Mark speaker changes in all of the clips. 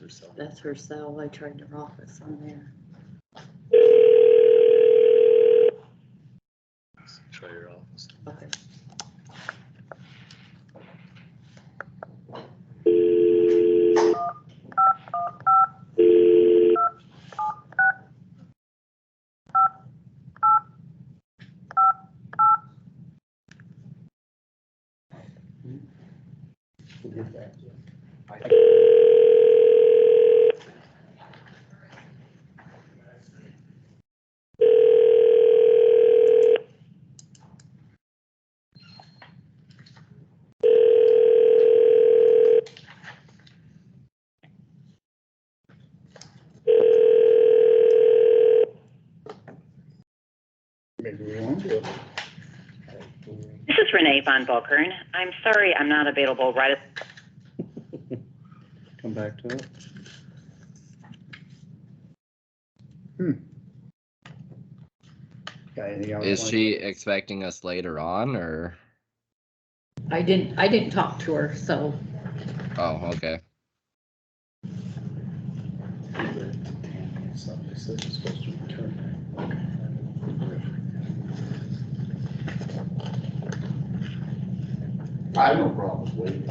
Speaker 1: her cell.
Speaker 2: That's her cell. I tried her office on there.
Speaker 1: Try your office.
Speaker 2: Okay.
Speaker 3: Maybe we won't do it.
Speaker 4: This is Renee Von Bokern. I'm sorry I'm not available right at
Speaker 3: Come back to it. Hmm. Got anything else?
Speaker 5: Is she expecting us later on or?
Speaker 2: I didn't, I didn't talk to her, so
Speaker 5: Oh, okay.
Speaker 1: Somebody said it's supposed to return.
Speaker 6: I have no problem waiting.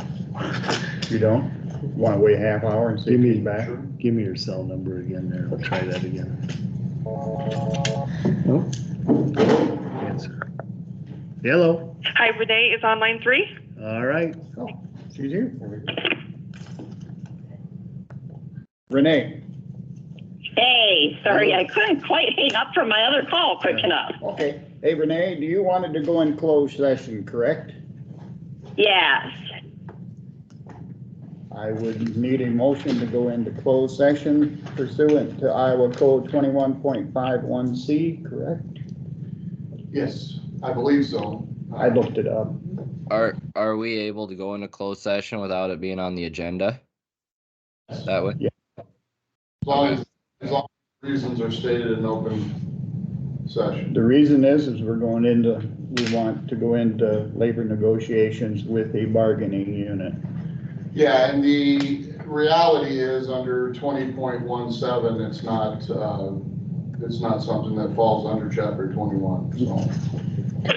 Speaker 3: You don't? Want to wait a half hour and see if he's back?
Speaker 7: Give me your cell number again there. I'll try that again. Hello.
Speaker 8: Hi, Renee is on line three.
Speaker 7: All right.
Speaker 3: She's here. Renee,
Speaker 4: Hey, sorry, I couldn't quite hang up from my other call quick enough.
Speaker 3: okay. Hey Renee, do you wanted to go in closed session, correct?
Speaker 4: Yes.
Speaker 3: I would need a motion to go into closed session pursuant to Iowa Code twenty-one point five one C, correct?
Speaker 6: Yes, I believe so.
Speaker 3: I looked it up.
Speaker 5: Are, are we able to go into closed session without it being on the agenda? That way?
Speaker 6: As long as, as long as reasons are stated in open session.
Speaker 3: The reason is, is we're going into, we want to go into labor negotiations with a bargaining unit.
Speaker 6: Yeah, and the reality is, under twenty point one seven, it's not, uh, it's not something that falls under chapter twenty-one, so.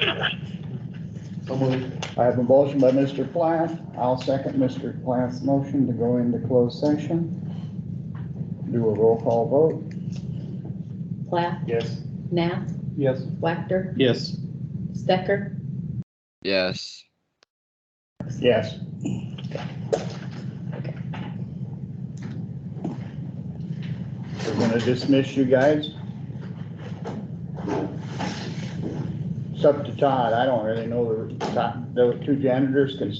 Speaker 3: I have a motion by Mr. Plath. I'll second Mr. Plath's motion to go into closed session. Do a roll call vote.
Speaker 2: Plath,
Speaker 3: Yes.
Speaker 2: Nath,
Speaker 3: Yes.
Speaker 2: Wactor,
Speaker 7: Yes.
Speaker 2: Stecker.
Speaker 5: Yes.
Speaker 3: Yes. We're gonna dismiss you guys. It's up to Todd. I don't really know the, Todd- the two janitors can